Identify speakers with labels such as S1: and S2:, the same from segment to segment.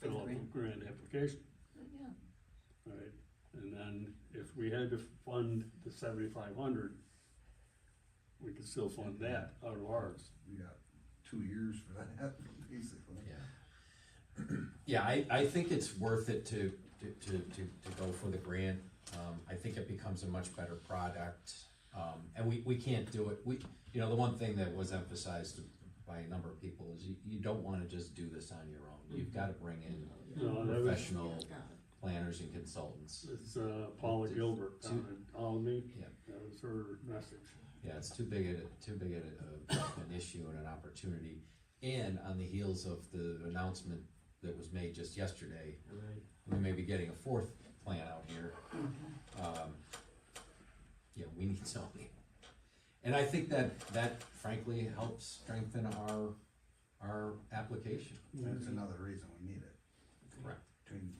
S1: fill out the
S2: Agree.
S1: grant application,
S2: Yeah,
S1: right? And then if we had to fund the seventy-five hundred, we could still fund that out of ours.
S3: We got two years for that, basically.
S4: Yeah. Yeah, I, I think it's worth it to, to, to, to, to go for the grant. Um, I think it becomes a much better product. Um, and we, we can't do it, we, you know, the one thing that was emphasized by a number of people is you, you don't wanna just do this on your own. You've gotta bring in
S1: No, that was,
S4: professional
S2: yeah.
S4: planners and consultants.
S1: it's uh, Paula Gilbert down in Alamy.
S4: Yeah.
S1: That was her message.
S4: Yeah, it's too big a, too big a, a- an issue and an opportunity. And on the heels of the announcement that was made just yesterday,
S1: Right.
S4: we may be getting a fourth plan out here. Um, Yeah, we need zoning. And I think that, that frankly helps strengthen our, our application.
S3: That's
S4: Mm-hmm.
S3: another reason we need it,
S4: Correct.
S3: between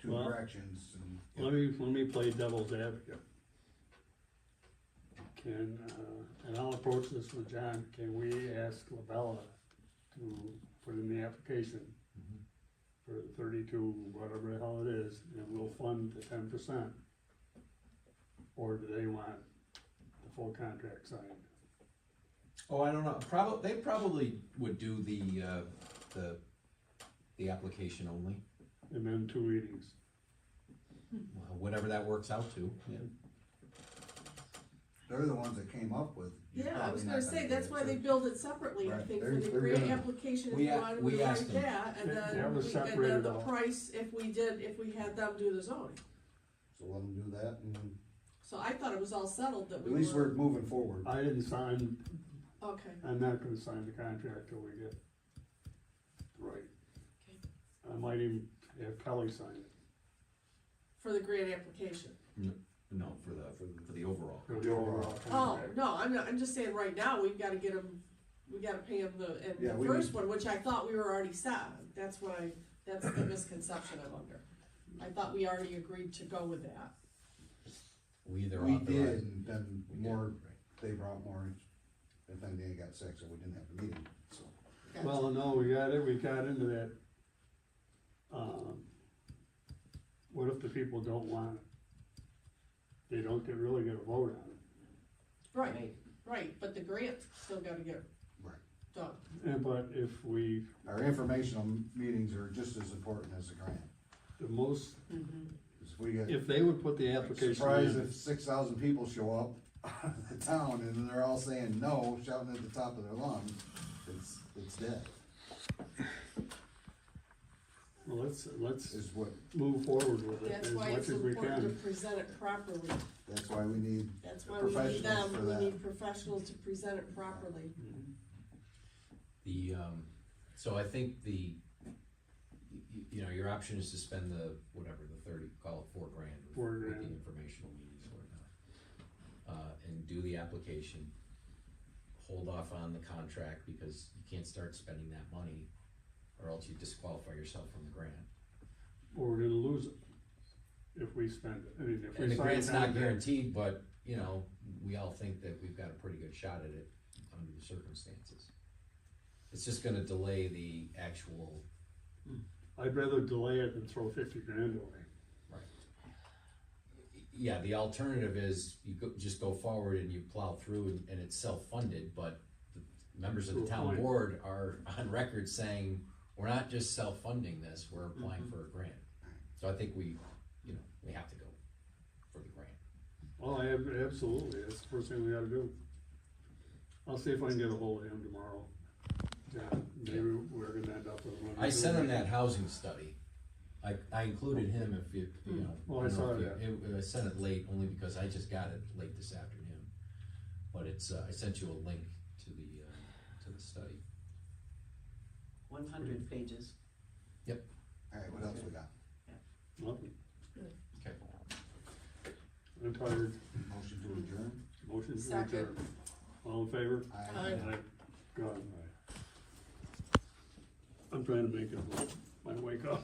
S3: two
S1: Well-
S3: directions and.
S1: Let me, let me play devil's advocate. Can, uh, and I'll approach this with John, can we ask Labella to put in the application
S4: Mhm.
S1: for thirty-two, whatever the hell it is, and we'll fund the ten percent? Or do they want the full contract signed?
S4: Oh, I don't know, probably, they probably would do the, uh, the, the application only,
S1: And then two readings,
S4: whatever that works out to.
S3: They're the ones that came up with. you're
S2: Yeah, I
S3: probably
S2: was
S3: not
S2: gonna say,
S3: do
S2: that's
S3: it,
S2: why they
S3: so-
S2: build it separately, I
S3: Right,
S2: think, for
S3: they're-
S2: the
S3: they're
S2: grant
S3: gonna-
S2: application, if
S4: We
S2: we
S4: a-
S2: wanted,
S4: we
S2: we like
S4: asked them.
S2: that, and
S1: That- that
S2: then
S1: was
S2: we get the,
S1: separated
S2: the
S1: out.
S2: price if we did, if we had them do the zoning.
S3: So let them do that and
S2: So I thought it was all settled that
S3: at
S2: we
S3: least
S2: were,
S3: we're moving forward.
S1: I didn't sign,
S2: okay,
S1: I'm not gonna sign the contract till we get. Right. I might even have Kelly sign it.
S2: for the grant application.
S4: No, for the, for the overall.
S1: for the overall
S2: Oh,
S1: contract.
S2: no, I'm not, I'm just saying, right now, we've gotta get them, we gotta pay them the,
S3: Yeah,
S2: and the
S3: we
S2: first one, which I thought we were already set, that's why, that's the misconception I'm under. I thought we already agreed to go with that,
S4: We either
S3: We did,
S4: authorize.
S3: and then
S4: We did,
S3: more, they brought more, and then they got sick, so we didn't have the meeting, so.
S2: Gotcha.
S1: Well, no, we got it, we got into that. Um, what if the people don't want it? They don't get, really get a vote on it.
S2: right, right, but the grant's still gotta get
S3: Right.
S2: done.
S1: And Eh, but if we,
S3: Our informational meetings are just as important as the grant,
S1: the most,
S3: 'cause we get.
S1: if they would put the application
S3: Surprised
S1: in,
S3: if six thousand people show up out of the town and they're all saying no, shouting at the top of their lungs, it's, it's dead,
S1: well, let's, let's
S3: is what,
S1: move forward with it
S2: That's
S1: as
S2: why
S1: much
S2: it's
S1: as we
S2: important to
S1: can.
S2: present it properly,
S3: that's why we need,
S2: that's why we need
S3: Professionals for
S2: them, we
S3: that.
S2: need professionals to present it properly.
S4: The, um, so I think the, y- y- you know, your option is to spend the, whatever, the thirty, call it four grand. with-
S1: Four
S4: with
S1: grand.
S4: The informational meetings or not. Uh, and do the application, hold off on the contract because you can't start spending that money or else you disqualify yourself from the grant.
S1: Or we're gonna lose it if we spend it, I mean, if we sign.
S4: And the grant's not
S1: contract-
S4: guaranteed, but, you know, we all think that we've got a pretty good shot at it under the circumstances. It's just gonna delay the actual
S1: I'd rather delay it than throw fifty grand away.
S4: Yeah, the alternative is you go, just go forward and you plow through and, and it's self-funded, but the members of the
S1: Good
S4: town
S1: point.
S4: board are on record saying, we're not just self-funding this, we're applying for a grant. So I think we, you know, we have to go for the grant.
S1: Oh, I ab- absolutely, that's the first thing we gotta do. I'll see if I can get a hold of him tomorrow. Yeah, maybe we're gonna end up with one.
S4: I sent him that housing study. I, I included him if you, you know.
S1: Hmm. Well, I
S4: don't know
S1: saw
S4: if you-
S1: that.
S4: It, I sent it late only because I just got it late this afternoon. But it's, uh, I sent you a link to the, uh, to the study.
S5: One hundred pages.
S3: alright, what else we got?
S1: Nothing.
S4: Okay.
S1: I'm tired,
S3: Motion to adjourn?
S1: motion to
S2: Second.
S1: adjourn. All in favor?
S2: Aye.
S1: Aye. God, I'm trying to make it, I wake up.